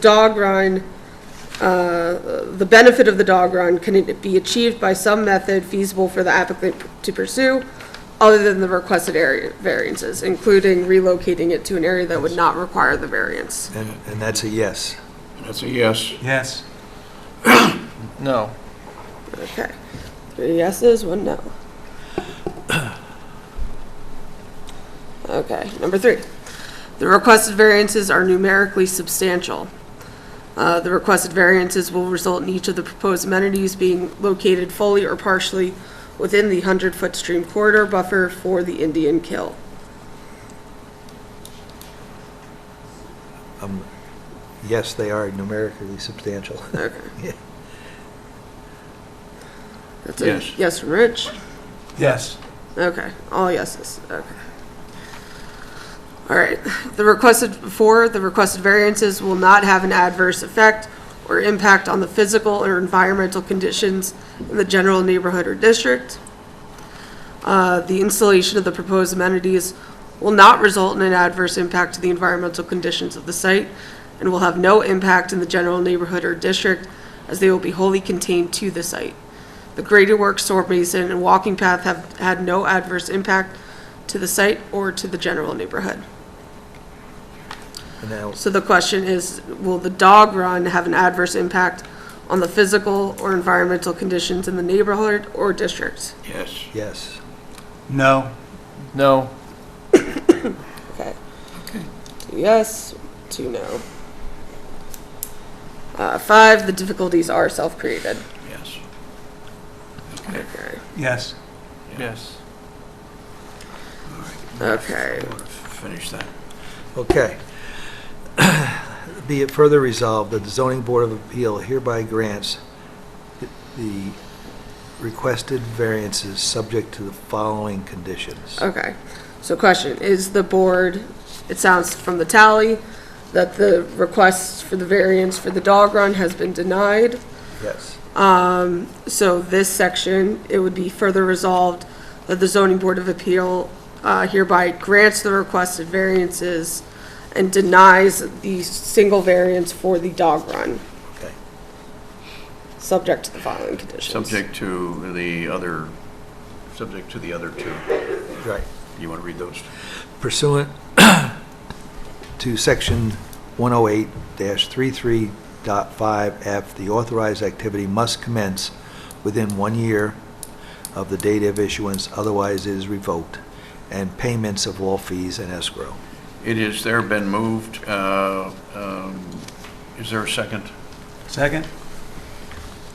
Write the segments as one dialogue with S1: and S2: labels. S1: dog run, uh, the benefit of the dog run, can it be achieved by some method feasible for the applicant to pursue other than the requested area variances, including relocating it to an area that would not require the variance?
S2: And, and that's a yes.
S3: That's a yes.
S2: Yes.
S4: No.
S1: Okay. Three yeses, one no. Okay, number three. The requested variances are numerically substantial. Uh, The requested variances will result in each of the proposed amenities being located fully or partially within the 100-foot stream corridor buffer for the Indian Kill.
S2: Yes, they are numerically substantial.
S1: Okay.
S2: Yeah.
S1: That's a
S3: Yes.
S1: yes from Rich.
S2: Yes.
S1: Okay, all yeses, okay. All right, the requested, four, the requested variances will not have an adverse effect or impact on the physical or environmental conditions in the general neighborhood or district. Uh, The installation of the proposed amenities will not result in an adverse impact to the environmental conditions of the site and will have no impact in the general neighborhood or district as they will be wholly contained to the site. The graded work, storm basin, and walking path have had no adverse impact to the site or to the general neighborhood.
S2: Now,
S1: So the question is, will the dog run have an adverse impact on the physical or environmental conditions in the neighborhood or district?
S3: Yes.
S2: yes.
S4: No. No.
S1: Okay. Two yes, two no. Uh, five, the difficulties are self-created.
S3: Yes.
S1: Okay.
S4: Yes. Yes.
S1: Okay.
S3: Finish that.
S2: Okay. Be it further resolved that the zoning board of appeal hereby grants the requested variances subject to the following conditions.
S1: Okay, so question, is the board, it sounds from the tally, that the request for the variance for the dog run has been denied.
S2: Yes.
S1: So this section, it would be further resolved that the zoning board of appeal uh, hereby grants the requested variances and denies the single variance for the dog run,
S2: Okay.
S1: subject to the following conditions.
S3: Subject to the other, subject to the other two.
S2: Right.
S3: You want to read those?
S2: pursuant to Section 108-33.5F, the authorized activity must commence within one year of the date of issuance, otherwise it is revoked, and payments of all fees and escrow.
S3: It is there been moved. uh, um, Is there a second?
S4: Second?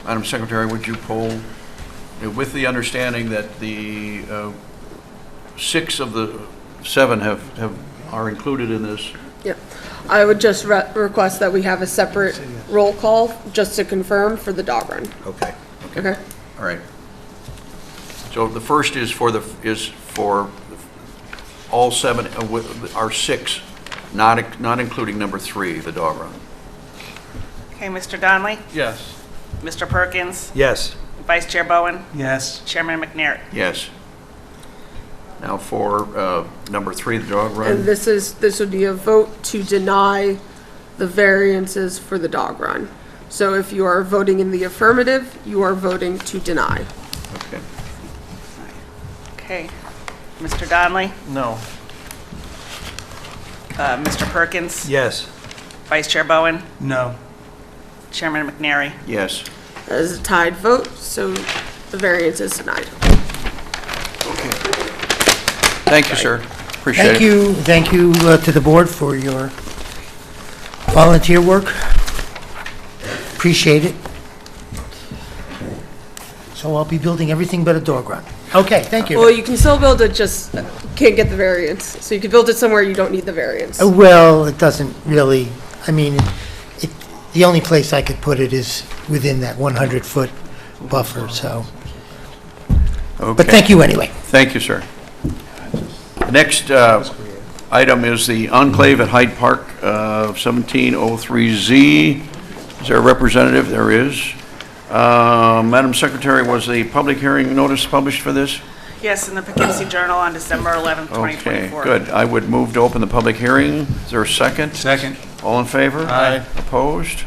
S3: Madam Secretary, would you poll, uh, with the understanding that the uh, six of the seven have, have, are included in this?
S1: Yep. I would just re- request that we have a separate roll call, just to confirm, for the dog run.
S2: Okay.
S1: Okay.
S3: All right. So the first is for the, is for all seven, uh, with- are six, not, not including number three, the dog run.
S5: Okay, Mr. Donnelly,
S4: Yes.
S5: Mr. Perkins,
S2: Yes.
S5: Vice Chair Bowen,
S4: Yes.
S5: Chairman McNair.
S3: Yes. Now for uh, number three, the dog
S1: And
S3: run.
S1: this is, this would be a vote to deny the variances for the dog run. So if you are voting in the affirmative, you are voting to deny.
S3: Okay.
S5: Okay, Mr. Donnelly,
S4: No.
S5: uh, Mr. Perkins,
S2: Yes.
S5: Vice Chair Bowen,
S4: No.
S5: Chairman McNary.
S3: Yes.
S1: That is a tied vote, so the variance is denied.
S3: Thank you, sir. Appreciate it.
S6: Thank you, thank you uh, to the board for your volunteer work. Appreciate it. So I'll be building everything but a dog run. Okay, thank
S1: Well,
S6: you.
S1: you can still build it, just can't get the variance. So you can build it somewhere you don't need the variance.
S6: Uh, Well, it doesn't really, I mean, it, the only place I could put it is within that 100-foot buffer, so. But
S3: Okay.
S6: thank you anyway.
S3: Thank you, sir. The next uh, item is the enclave at Hyde Park, uh, 1703Z. Is there a representative? There is. Uh, Madam Secretary, was the public hearing notice published for this?
S5: Yes, in the Poughkeepsie Journal on December 11th, 2024.
S3: Okay, good. I would move to open the public hearing. Is there a second?
S4: Second?
S3: All in favor?
S4: Aye.
S3: Opposed?